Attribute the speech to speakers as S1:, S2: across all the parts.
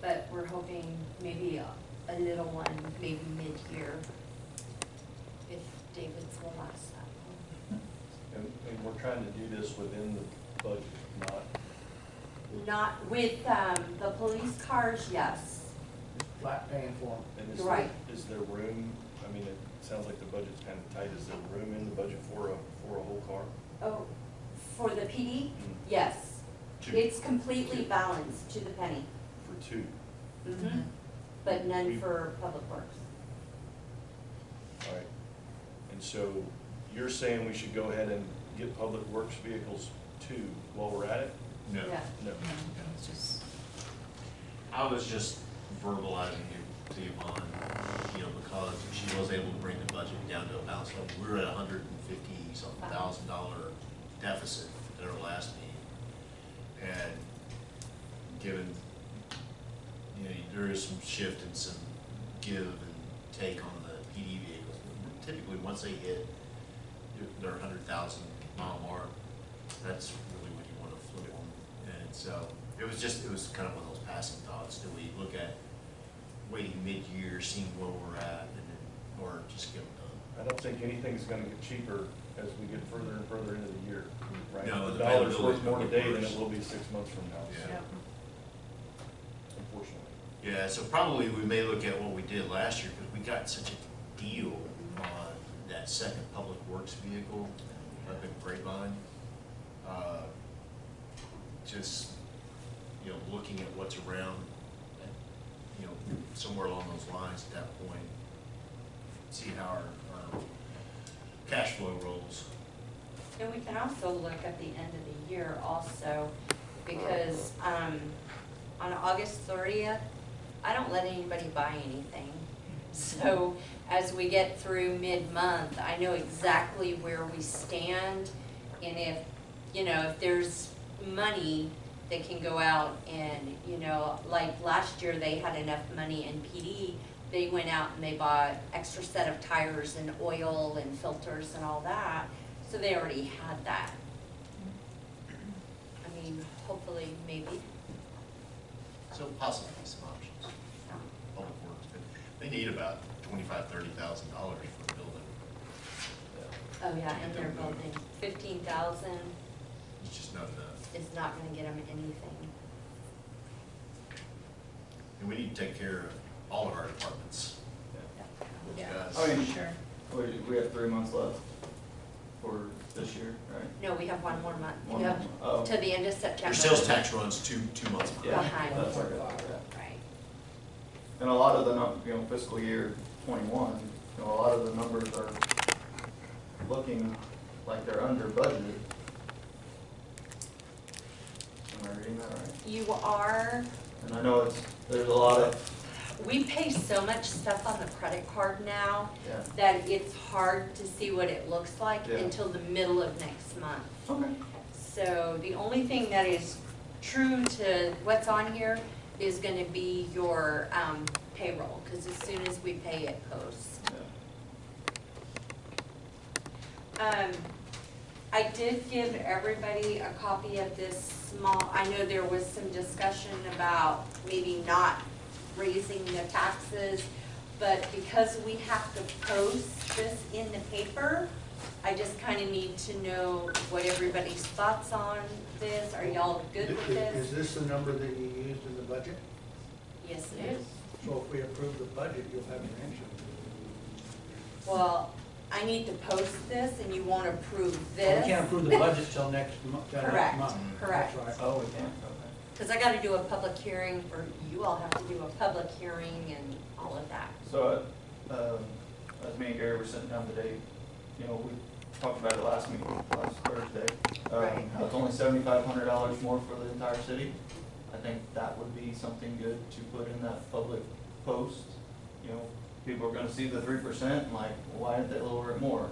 S1: but we're hoping maybe a, a little one, maybe mid-year, if David's will last that
S2: And, and we're trying to do this within the budget, not,
S1: long. Not with, um, the police cars, yes.
S3: flat paying for them.
S2: and is there,
S1: Right.
S2: is there room? I mean, it sounds like the budget's kind of tight. Is there room in the budget for a, for a whole car?
S1: Oh, for the PD, yes.
S2: Two.
S1: It's completely balanced to the penny.
S2: For two.
S1: Mhm. But none for public works.
S2: All right. And so you're saying we should go ahead and get public works vehicles two while we're at it?
S4: No.
S1: Yeah.
S2: No.
S4: No, no, it's just, I was just verbalizing it to Yvonne, you know, because she was able to bring the budget down to a balance. Like, we were at a hundred and fifty something thousand dollar deficit at our last meeting. And given, you know, there is some shift and some give and take on the PD vehicles. Typically, once they hit their hundred thousand mile mark, that's really when you wanna flip them. And so, it was just, it was kind of one of those passing thoughts, do we look at waiting mid-year, seeing where we're at, and then, or just get them
S2: I don't think anything's gonna get cheaper as we get further and further into the year, right?
S4: No,
S2: The
S4: the
S2: dollar's
S4: availability's
S2: worth more
S4: gonna be
S2: today than
S4: worse.
S2: it will be six months from now,
S4: done?
S2: so, unfortunately.
S4: Yeah, so probably we may look at what we did last year, because we got such a deal on that second public works vehicle up in Grapevine. Uh, Just, you know, looking at what's around, you know, somewhere along those lines at that point, see how our, our um, cash flow rolls.
S1: And we can also look at the end of the year also, because, um, on August thirtieth, I don't let anybody buy anything. So as we get through mid-month, I know exactly where we stand, and if, you know, if there's money that can go out and, you know, like last year, they had enough money in PD, they went out and they bought extra set of tires and oil and filters and all that, so they already had that. I mean, hopefully, maybe,
S4: So possibly some options,
S1: no.
S4: public works, but they need about twenty-five, thirty thousand dollars for a building.
S1: Oh, yeah, and they're building, fifteen thousand
S4: It's just not enough.
S1: is not gonna get them anything.
S4: And we need to take care of all of our departments. Those
S5: Yeah.
S4: guys.
S6: I mean,
S5: Sure.
S6: what do you- Oh, we have three months left for this year, right?
S1: No, we have one more month,
S6: One
S1: you
S6: more
S1: have,
S6: month. Oh.
S1: to the end of September.
S4: Your sales tax runs two, two months behind.
S6: Yeah,
S1: Behind.
S6: that's what I got, yeah.
S1: Right,
S6: And a lot of the num, you know, fiscal year twenty-one, you know, a lot of the numbers are looking like they're under budget. Am I reading that right?
S1: you are,
S6: And I know it's, there's a lot of,
S1: we pay so much stuff on the credit card now
S6: yeah,
S1: that it's hard to see what it looks like
S6: Yeah.
S1: until the middle of next month.
S6: okay,
S1: So the only thing that is true to what's on here is gonna be your um, payroll, because as soon as we pay it posts.
S6: yeah.
S1: Um, I did give everybody a copy of this small, I know there was some discussion about maybe not raising the taxes, but because we have to post this in the paper, I just kinda need to know what everybody's thoughts on this, are y'all good with this?
S7: Is this the number that you used in the budget?
S1: Yes, it is.
S7: So if we approve the budget, you'll have your answer.
S1: Well, I need to post this and you won't approve
S7: We can't
S1: this,
S7: approve the budget till next month, till
S1: Correct,
S7: next month.
S1: correct.
S7: That's right.
S6: Oh, we can't, okay.
S1: cause I gotta do a public hearing, or you all have to do a public hearing and all of that.
S6: So, um, as me and Gary were sitting down today, you know, we talked about it last meeting, last Thursday.
S1: Right.
S6: Um, how it's only seventy-five hundred dollars more for the entire city. I think that would be something good to put in that public post. You know, people are gonna see the three percent and like, why did they lower it more?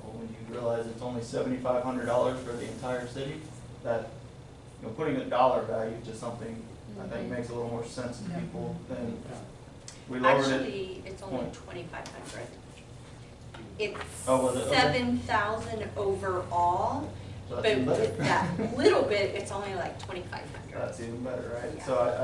S6: Well, when you realize it's only seventy-five hundred dollars for the entire city, that, you know, putting a dollar value to something, I
S1: Mm-hmm.
S6: think makes a little more sense to people than we lowered it.
S1: Actually, it's only
S6: Point.
S1: twenty-five hundred.
S6: Oh, was it?
S1: It's
S6: Okay.
S1: seven thousand overall,
S6: So
S1: but
S6: that's even better.
S1: with that little bit, it's only like twenty-five hundred.
S6: That's even better, right?
S1: Yeah.
S6: So I,